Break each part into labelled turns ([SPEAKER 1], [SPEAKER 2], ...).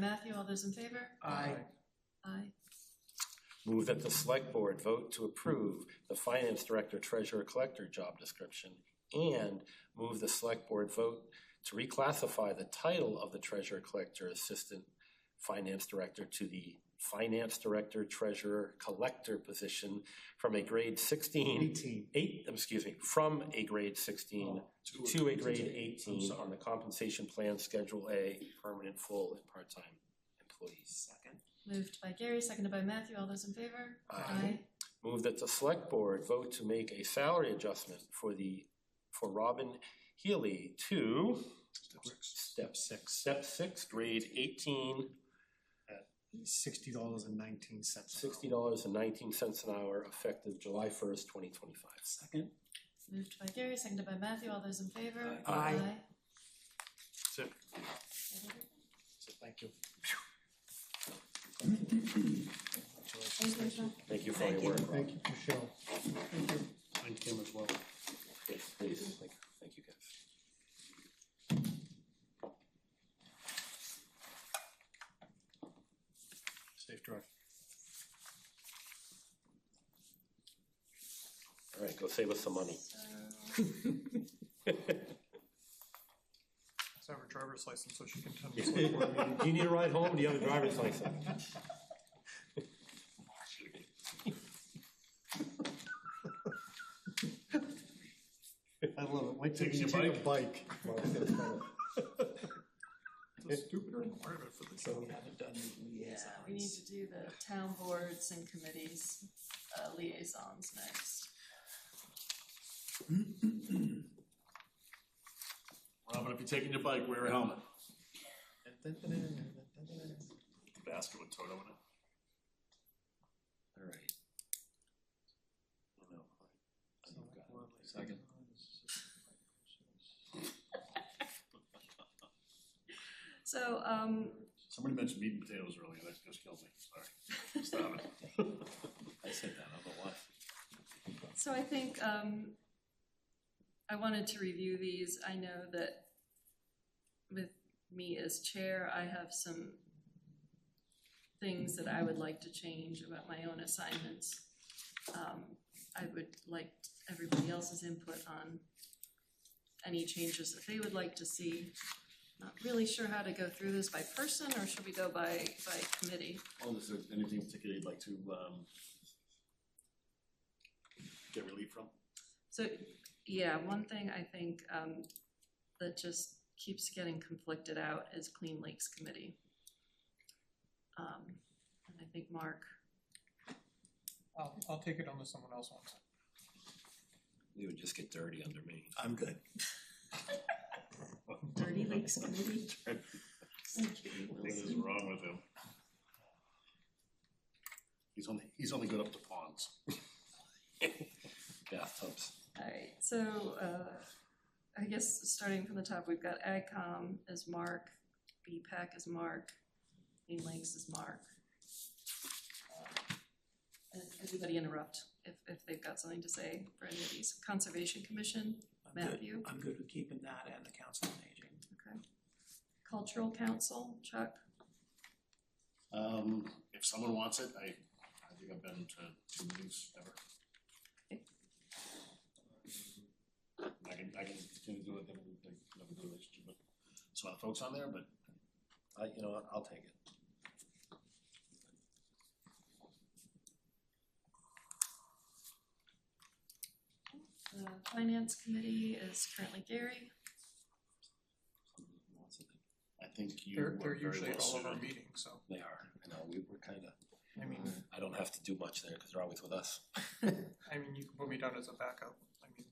[SPEAKER 1] Matthew, all those in favor?
[SPEAKER 2] Aye.
[SPEAKER 1] Aye.
[SPEAKER 3] Move that the select board vote to approve the finance director treasurer collector job description and move the select board vote to reclassify the title of the treasurer collector assistant finance director to the finance director treasurer collector position from a grade sixteen,
[SPEAKER 2] Eighteen.
[SPEAKER 3] eight, excuse me, from a grade sixteen to a grade eighteen on the compensation plan schedule A, permanent full and part-time employees.
[SPEAKER 2] Second.
[SPEAKER 1] Moved by Gary, seconded by Matthew, all those in favor?
[SPEAKER 3] Aye. Move that the select board vote to make a salary adjustment for the, for Robin Healy to
[SPEAKER 4] Step six.
[SPEAKER 3] step six, step six, grade eighteen,
[SPEAKER 2] Sixty dollars and nineteen cents.
[SPEAKER 3] sixty dollars and nineteen cents an hour, effective July first, twenty twenty-five.
[SPEAKER 2] Second.
[SPEAKER 1] Moved by Gary, seconded by Matthew, all those in favor?
[SPEAKER 2] Aye. Aye.
[SPEAKER 4] That's it.
[SPEAKER 2] So thank you.
[SPEAKER 1] Thank you, Michelle.
[SPEAKER 3] Thank you for all your work, Rob.
[SPEAKER 2] Thank you, Michelle. Thank you.
[SPEAKER 4] And Kim as well.
[SPEAKER 3] Yes, please, thank, thank you guys.
[SPEAKER 4] Safe drive.
[SPEAKER 3] All right, go save us some money.
[SPEAKER 5] Send her driver's license so she can attend the select board meeting.
[SPEAKER 3] Do you need a ride home? Do you have a driver's license?
[SPEAKER 2] I love it. Wait till
[SPEAKER 4] Taking
[SPEAKER 2] you
[SPEAKER 4] your
[SPEAKER 2] take a bike.
[SPEAKER 5] It's a stupider requirement for this.
[SPEAKER 2] So we haven't done the
[SPEAKER 1] Yeah, we need to do the town boards and committees uh, liaisons next.
[SPEAKER 4] Robin, if you're taking your bike, wear a helmet.
[SPEAKER 2] liaisons.
[SPEAKER 4] Basket with Toto in it.
[SPEAKER 3] All right.
[SPEAKER 4] Second.
[SPEAKER 1] So, um,
[SPEAKER 4] Somebody mentioned meat and potatoes earlier, that just killed me, sorry. Stop it. I said that, I don't know why.
[SPEAKER 1] So I think, um, I wanted to review these. I know that with me as chair, I have some things that I would like to change about my own assignments. Um, I would like everybody else's input on any changes that they would like to see. Not really sure how to go through this by person, or should we go by, by committee?
[SPEAKER 4] Well, Oh, is there anything in particular you'd like to, um, get relief from?
[SPEAKER 1] So, yeah, one thing I think um that just keeps getting conflicted out is Clean Lakes Committee. Um, and I think Mark,
[SPEAKER 5] I'll, I'll take it unless someone else wants it.
[SPEAKER 3] You would just get dirty under me.
[SPEAKER 4] I'm good.
[SPEAKER 1] Dirty Lakes Committee?
[SPEAKER 4] What is wrong with him? He's only, he's only good up to ponds.
[SPEAKER 3] Bathtubs.
[SPEAKER 1] Alright, so uh I guess starting from the top, we've got AgCom as Mark, BPAC as Mark, Clean Lakes as Mark. Uh, And everybody interrupt if if they've got something to say for any of these. Conservation Commission,
[SPEAKER 6] I'm good.
[SPEAKER 1] Matthew?
[SPEAKER 6] I'm good with keeping that and the council on aging.
[SPEAKER 1] Okay. Cultural Council, Chuck,
[SPEAKER 4] Um, if someone wants it, I, I think I've been to two meetings ever. I can, I can continue to do it, then we can have a good relationship, but, there's a lot of folks on there, but
[SPEAKER 3] I, you know, what, I'll take it.
[SPEAKER 1] the Uh, Finance Committee is currently Gary.
[SPEAKER 4] I think you
[SPEAKER 5] They're,
[SPEAKER 4] were
[SPEAKER 5] they're
[SPEAKER 4] very
[SPEAKER 5] usually
[SPEAKER 4] well
[SPEAKER 5] at all of our
[SPEAKER 4] suited.
[SPEAKER 5] meetings, so,
[SPEAKER 3] They are, I know, we were kind of,
[SPEAKER 5] I mean,
[SPEAKER 3] I don't have to do much there because they're always with us.
[SPEAKER 5] I mean, you can put me down as a backup. I mean,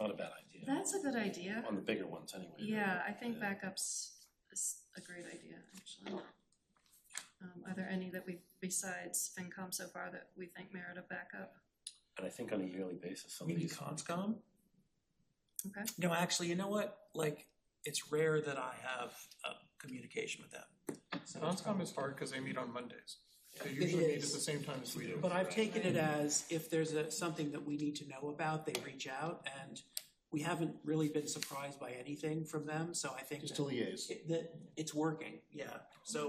[SPEAKER 3] Not a bad idea,
[SPEAKER 1] That's a good idea.
[SPEAKER 3] on the bigger ones anyway.
[SPEAKER 1] Yeah, I think backups is a great idea, actually. Um, are there any that we, besides FinCom so far, that we think merit a backup?
[SPEAKER 3] And I think on a yearly basis, some
[SPEAKER 6] We
[SPEAKER 3] of
[SPEAKER 6] need
[SPEAKER 3] these,
[SPEAKER 6] conscom?
[SPEAKER 1] Okay.
[SPEAKER 6] No, actually, you know what? Like, it's rare that I have, uh, communication with them. So it's
[SPEAKER 5] Conscom is hard because they meet on Mondays. They
[SPEAKER 6] It
[SPEAKER 5] usually meet at
[SPEAKER 6] is.
[SPEAKER 5] the same time as we do.
[SPEAKER 6] But I've taken it as if there's a, something that we need to know about, they reach out and we haven't really been surprised by anything from them, so I think
[SPEAKER 4] Just
[SPEAKER 6] that
[SPEAKER 4] to liaise.
[SPEAKER 6] it- that it's working, yeah. So